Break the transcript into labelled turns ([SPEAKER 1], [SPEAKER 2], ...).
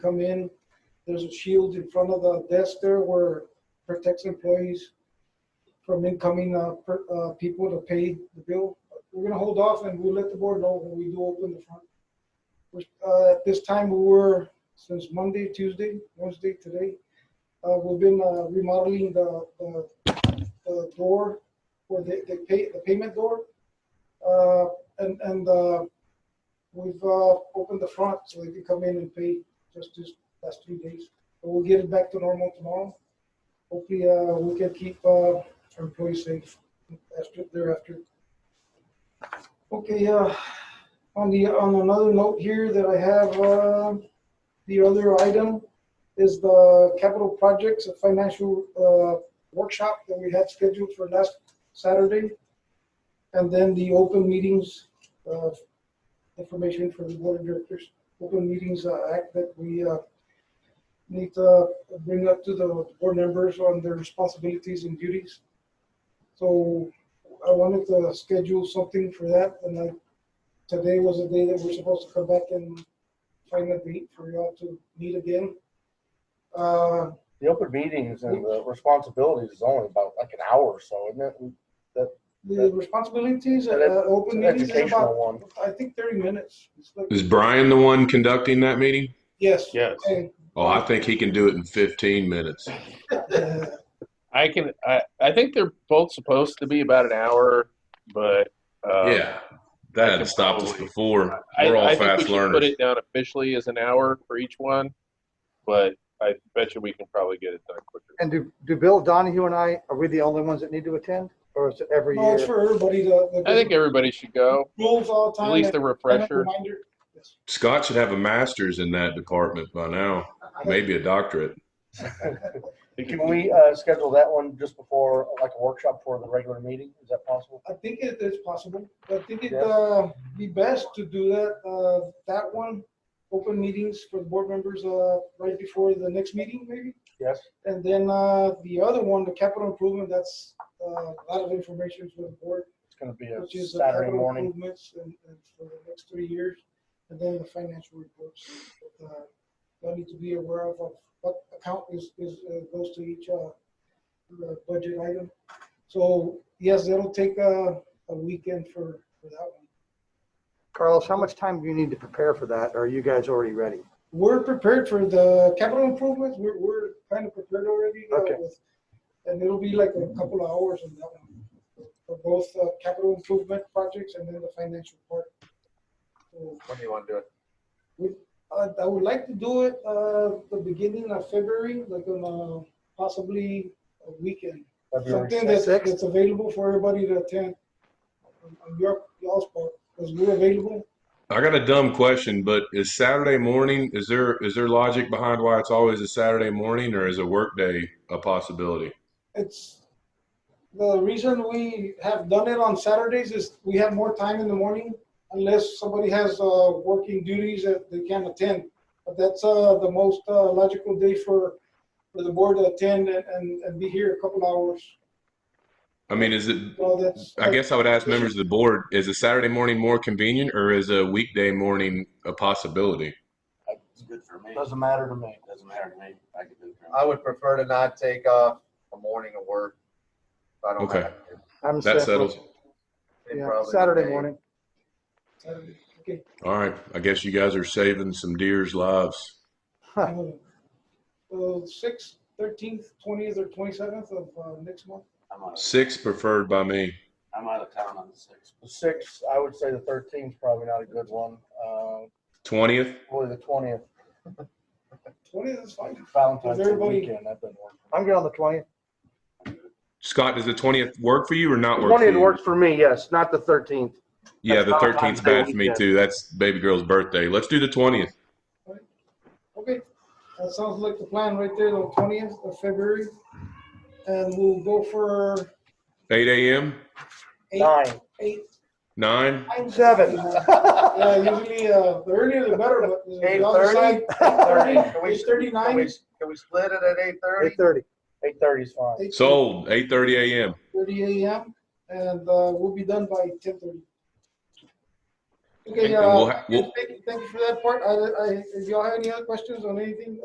[SPEAKER 1] come in, there's a shield in front of the desk there where protects employees from incoming, uh, per- uh, people to pay the bill. We're gonna hold off and we'll let the board know when we do open the front. We're- Uh, at this time, we were, since Monday, Tuesday, Wednesday, today, uh, we've been uh, remodeling the, the, the door for the, the pay, the payment door. Uh, and, and, uh, we've, uh, opened the front so they can come in and pay just this last three days. But we'll get it back to normal tomorrow. Hopefully, uh, we can keep, uh, our employees safe after, thereafter. Okay, uh, on the, on another note here that I have, uh, the other item is the capital projects and financial, uh, workshop that we had scheduled for last Saturday. And then the open meetings, uh, information for the board of directors, open meetings uh, act that we, uh, need to bring up to the board members on their responsibilities and duties. So I wanted to schedule something for that and I, today was the day that we're supposed to come back and find a date for y'all to meet again. Uh,
[SPEAKER 2] The open meetings and the responsibilities is only about like an hour or so, isn't it?
[SPEAKER 1] The responsibilities, uh,
[SPEAKER 2] And that's-
[SPEAKER 1] open
[SPEAKER 2] An
[SPEAKER 1] meetings is
[SPEAKER 2] educational
[SPEAKER 1] about,
[SPEAKER 2] one.
[SPEAKER 1] I think thirty minutes. It's like-
[SPEAKER 3] Is Brian the one conducting that meeting?
[SPEAKER 1] Yes.
[SPEAKER 4] Yes,
[SPEAKER 1] Okay.
[SPEAKER 3] Oh, I think he can do it in 15 minutes.
[SPEAKER 1] Uh,
[SPEAKER 4] I can. I, I think they're both supposed to be about an hour, but uh,
[SPEAKER 3] yeah, that had stopped us
[SPEAKER 4] probably-
[SPEAKER 3] before.
[SPEAKER 4] I,
[SPEAKER 3] We're all
[SPEAKER 4] I think we
[SPEAKER 3] fast
[SPEAKER 4] should put
[SPEAKER 3] learners.
[SPEAKER 4] it down officially as an hour for each one, but I bet you we can probably get it done quicker.
[SPEAKER 5] And do, do Bill, Donahue and I, are we the only ones that need to attend? Or is it every
[SPEAKER 1] No, it's
[SPEAKER 5] year?
[SPEAKER 1] for everybody, the, the.
[SPEAKER 4] I think everybody should go.
[SPEAKER 1] Rules all the time.
[SPEAKER 4] At least a
[SPEAKER 1] and a
[SPEAKER 4] refresher.
[SPEAKER 1] reminder. Yes.
[SPEAKER 3] Scott should have a master's in that department by now, maybe a doctorate.
[SPEAKER 2] Can we uh, schedule that one just before, like a workshop before the regular meeting? Is that possible?
[SPEAKER 1] I think it is possible. I think it,
[SPEAKER 2] Yes.
[SPEAKER 1] uh, be best to do that, uh, that one, open meetings for the board members, uh, right before the next meeting, maybe?
[SPEAKER 2] Yes.
[SPEAKER 1] And then, uh, the other one, the capital improvement, that's, uh, a lot of information for the board.
[SPEAKER 2] It's going to be
[SPEAKER 1] which
[SPEAKER 2] a
[SPEAKER 1] is the
[SPEAKER 2] Saturday
[SPEAKER 1] capital
[SPEAKER 2] morning.
[SPEAKER 1] improvements and, and for the next three years, and then the financial reports. that, uh, Y'all need to be aware of of what account is, is, uh, goes to each, uh, uh, budget item. So, yes, it'll take a, a weekend for, for that one.
[SPEAKER 5] Carlos, how much time do you need to prepare for that? Or are you guys already ready?
[SPEAKER 1] We're prepared for the capital improvements, we're, we're kind of prepared already. uh,
[SPEAKER 5] Okay.
[SPEAKER 1] with- And it'll be like a couple of hours on that one, for both, uh, capital improvement projects and then the financial part. So,
[SPEAKER 4] When do you want to do it?
[SPEAKER 1] Uh, I would like to do it, uh, the beginning of February, like on, uh, possibly a weekend.
[SPEAKER 2] February
[SPEAKER 1] Something that's,
[SPEAKER 2] sixth.
[SPEAKER 5] sixth.
[SPEAKER 1] that's available for everybody to attend. on- On your, y'all's part, because we're available.
[SPEAKER 3] I got a dumb question, but is Saturday morning, is there is there logic behind why it's always a Saturday morning or is a workday a possibility?
[SPEAKER 1] It's, the reason we have done it on Saturdays is we have more time in the morning unless somebody has, uh, working duties that they can't attend. But that's, uh, the most, uh, logical day for, for the board to attend and- and, and be here a couple hours.
[SPEAKER 3] I mean, is it
[SPEAKER 1] So that's.
[SPEAKER 3] I guess I would ask members of the board, is a Saturday morning more convenient or is a weekday morning a possibility?
[SPEAKER 6] It's good for me.
[SPEAKER 2] Doesn't matter to me.
[SPEAKER 6] Doesn't matter to me. I can do it. for
[SPEAKER 7] I would prefer to not take off a morning of work. if I don't
[SPEAKER 3] Okay.
[SPEAKER 7] have to.
[SPEAKER 5] I'm
[SPEAKER 3] That
[SPEAKER 5] set.
[SPEAKER 3] settles.
[SPEAKER 7] It'd
[SPEAKER 5] Yeah,
[SPEAKER 7] probably
[SPEAKER 5] Saturday
[SPEAKER 7] be-
[SPEAKER 5] morning.
[SPEAKER 1] Saturday. Okay.
[SPEAKER 3] All right, I guess you guys are saving some deer's lives.
[SPEAKER 5] Huh.
[SPEAKER 1] Uh, sixth, thirteenth, twentieth, or twenty-seventh of, uh, next month.
[SPEAKER 6] I'm out, of-
[SPEAKER 3] Six preferred by me.
[SPEAKER 6] I'm out of town on the sixth.
[SPEAKER 2] The sixth, I would say the thirteenth is probably not a good one. Uh,
[SPEAKER 3] Twentieth,
[SPEAKER 2] Probably the twentieth,
[SPEAKER 1] Twentieth is fine.
[SPEAKER 2] Valentine's Day
[SPEAKER 1] everybody-
[SPEAKER 2] weekend. That doesn't work.
[SPEAKER 5] I'm good on the 20th.
[SPEAKER 3] Scott, does the twentieth work for you or not work? For
[SPEAKER 5] Twentieth
[SPEAKER 3] you?
[SPEAKER 5] works for me, yes, not the thirteenth.
[SPEAKER 3] Yeah, the
[SPEAKER 5] That's
[SPEAKER 3] thirteenth
[SPEAKER 5] Valentine's Day
[SPEAKER 3] bad for me
[SPEAKER 5] weekend.
[SPEAKER 3] too. That's baby girl's birthday. Let's do the twentieth.
[SPEAKER 1] Okay, that sounds like the plan right there, the twentieth of February. And we'll go for
[SPEAKER 3] Eight a.m.
[SPEAKER 1] eight,
[SPEAKER 2] Nine.
[SPEAKER 1] eight.
[SPEAKER 3] Nine.
[SPEAKER 1] nine-
[SPEAKER 5] Seven.
[SPEAKER 1] Yeah, usually, uh, the earlier the better, but.
[SPEAKER 7] Eight
[SPEAKER 1] Eight
[SPEAKER 7] thirty? Can
[SPEAKER 1] thirty,
[SPEAKER 7] we-
[SPEAKER 1] eight
[SPEAKER 7] Can we,
[SPEAKER 1] thirty-nine,
[SPEAKER 7] can we split it at eight thirty?
[SPEAKER 5] Eight thirty.
[SPEAKER 2] Eight thirty is fine.
[SPEAKER 1] eight
[SPEAKER 3] Sold. Eight thirty a.m.
[SPEAKER 1] thirty AM, and, uh, we'll be done by ten thirty. Okay,
[SPEAKER 3] And we'll
[SPEAKER 1] uh,
[SPEAKER 3] ha- we'll-
[SPEAKER 1] thank you- thank you for that part. I, I, if y'all have any other questions on anything,